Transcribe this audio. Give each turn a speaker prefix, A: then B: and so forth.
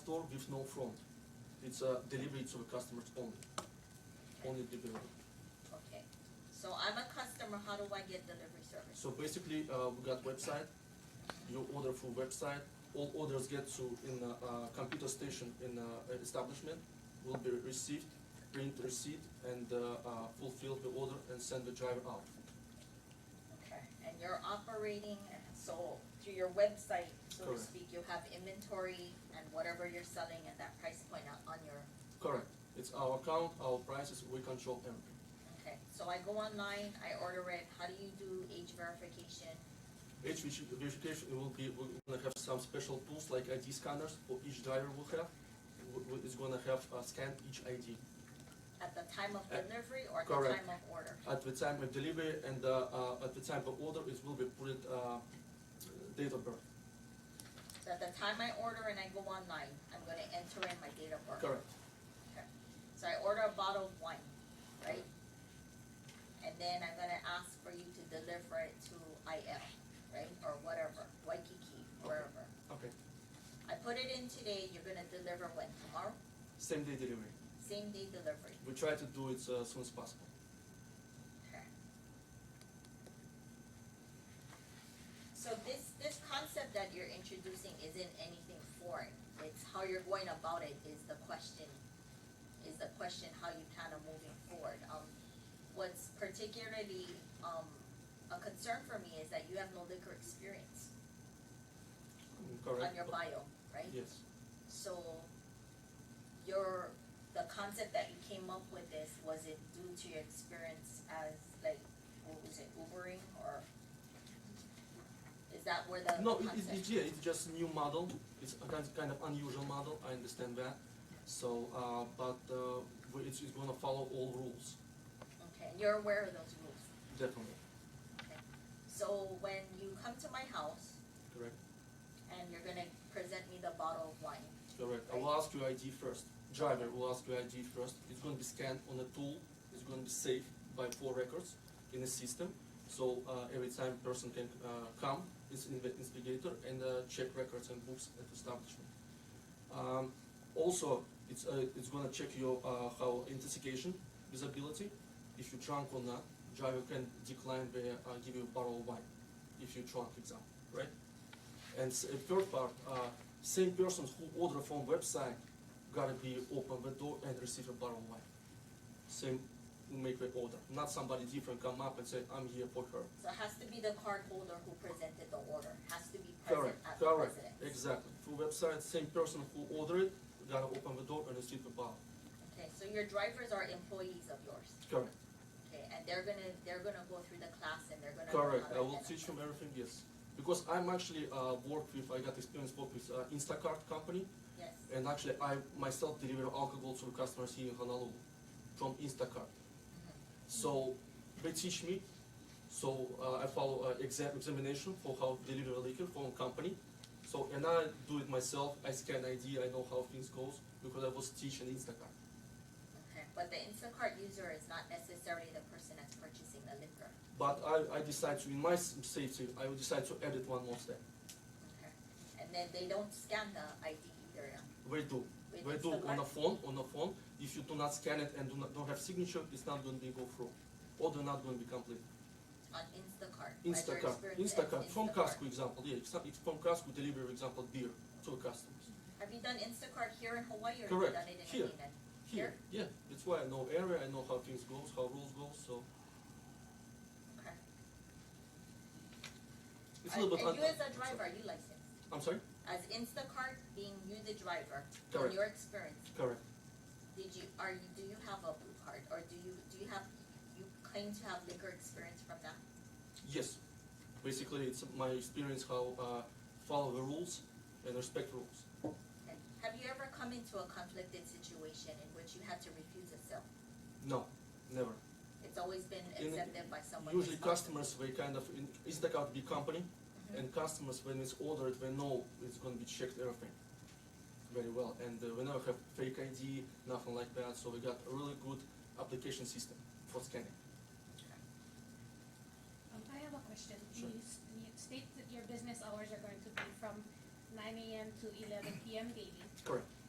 A: door with no front. It's a delivery to the customers only, only delivery.
B: Okay, so I'm a customer, how do I get delivery service?
A: So basically, uh, we got website. You order through website. All orders get to in a, uh computer station in a establishment will be received, print receipt, and uh, uh, fulfill the order and send the driver out.
B: Okay, and you're operating, so through your website, so to
A: Correct.
B: speak, you have inventory and whatever you're selling at that price point on- on your,
A: Correct. It's our account, our prices. We control everything.
B: okay. So I go online, I order it, how do you do age verification?
A: Each verifi- verification will be we're gonna have some special tools like ID scanners. For each driver will have. W- w- It's gonna have uh, scan each ID.
B: At the time of
A: Uh,
B: delivery or at the
A: correct.
B: time of order?
A: at the time of delivery and uh, uh, at the time of order, it will be put uh, date of birth.
B: So at the time I order and I go online, I'm gonna enter in my date of birth.
A: Correct.
B: So I order a bottle of wine, right? And then I'm gonna ask for you to deliver it to IL, right, or whatever, Waikiki, wherever.
A: Okay.
B: I put it in today, you're gonna deliver when, tomorrow,
A: Same day delivery.
B: same day delivery,
A: We try to do it uh, as soon as possible.
B: okay? So this, this concept that you're introducing isn't anything foreign, it's how you're going about it is the question, is the question how you plan on moving forward. Um, what's particularly, um, a concern for me is that you have no liquor experience
A: Mm,
B: on
A: Correct.
B: your bio, right?
A: Yes.
B: So your, the concept that you came up with this, was it due to your experience as like, what was it, Ubering or? Is that where the
A: No, it,
B: concept?
A: it, it, yeah, it's just new model. It's a kind kind of unusual model. I understand that. So, uh, but uh, we- it's, it's going to follow all rules,
B: Okay, and you're aware of those rules.
A: definitely.
B: So when you come to my house
A: Correct.
B: and you're gonna present me the bottle of wine,
A: Correct. I will ask your ID first. Driver will ask your ID first. It's going to be scanned on a tool. It's going to be saved by four records in a system. So uh, every time person can uh, come, it's in the investigator and uh, check records and books at establishment. Um, also, it's uh, it's going to check your uh, how intoxication visibility. If you're drunk or not, driver can decline the uh, give you a bottle of wine if you're drunk, example, right? And s- uh, third part. Uh, same persons who order from website gotta be open the door and receive a bottle of wine. Same who make the order, not somebody different come up and say, I'm here for her.
B: so it has to be the cardholder who presented the order, has to be present
A: Correct,
B: at the
A: correct,
B: residence.
A: exactly. Through website, same person who order it, gotta open the door and receive the bottle.
B: Okay, so your drivers are employees of yours?
A: Correct,
B: Okay, and they're gonna, they're gonna go through the class and they're gonna. learn
A: correct. I
B: how to
A: will
B: identify.
A: teach him everything, yes. Because I'm actually, uh, work with, I got experience work with, uh, Instacart company,
B: Yes,
A: and actually I myself deliver alcohol to customers here in Honolulu from Instacart. So they teach me. So uh, I follow uh, exam examination for how to deliver liquor from company. So and I do it myself. I scan ID. I know how things goes because I was teaching Instacart.
B: okay, but the Instacart user is not necessarily the person that's purchasing the liquor,
A: But I, I decide to in my s- safety I will decide to edit one more step.
B: okay? And then they don't scan the ID either, yeah?
A: We do.
B: with
A: We do on a
B: Instacart?
A: phone. On a phone. If you do not scan it and do not don't have signature, it's not going to be go through, or they're not going to be complete.
B: On Instacart. by your
A: Instacart,
B: experience at
A: Instacart, from
B: Instacart.
A: Costco example, yeah, it's, it's from Costco deliver example beer to customers.
B: Have you done Instacart here in Hawaii or have you
A: Correct,
B: done it in
A: here.
B: Hawaii?
A: Here, yeah, that's why I know area, I know how things goes, how rules goes, so
B: Okay.
A: it's a little bit. un-
B: And you as a driver, are you licensed?
A: I'm sorry,
B: As Instacart being you the driver,
A: Correct.
B: in your experience,
A: correct,
B: Did you, are you, do you have a blue card, or do you, do you have, you claim to have liquor experience from that?
A: yes, basically it's my experience how, uh, follow the rules and respect rules.
B: Okay. Have you ever come into a conflicted situation in which you had to refuse a sale?
A: No, never,
B: It's always been
A: In-
B: accepted by someone.
A: usually
B: responsible.
A: customers, they kind of, in- Instacart big company,
B: Mhm.
A: and customers, when it's ordered, they know it's gonna be checked everything very well, and uh, we never have fake ID, nothing like that, so we got a really good application system for scanning.
C: Um, I have a question.
A: Sure.
C: You, s- you state that your business hours are going to be from nine AM to eleven PM daily.
A: Correct.